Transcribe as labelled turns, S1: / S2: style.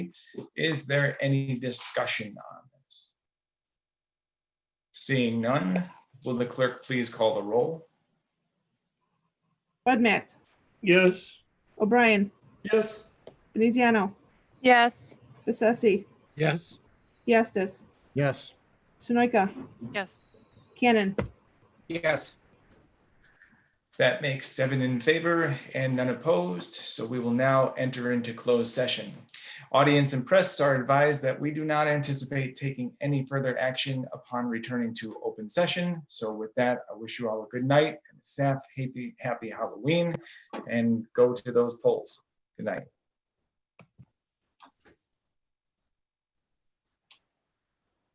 S1: Is there any discussion on this? Seeing none, will the clerk please call the roll?
S2: Budmats,
S3: Yes.
S2: O'Brien,
S3: Yes.
S2: Veneziano,
S4: Yes.
S2: Bessesi,
S3: Yes.
S2: Diastis,
S5: Yes.
S2: Sunoika,
S4: Yes.
S2: Cannon,
S3: Yes.
S1: That makes seven in favor and none opposed, so we will now enter into closed session. Audience and press are advised that we do not anticipate taking any further action upon returning to open session. So with that, I wish you all a good night and staff happy, happy Halloween and go to those polls. Good night.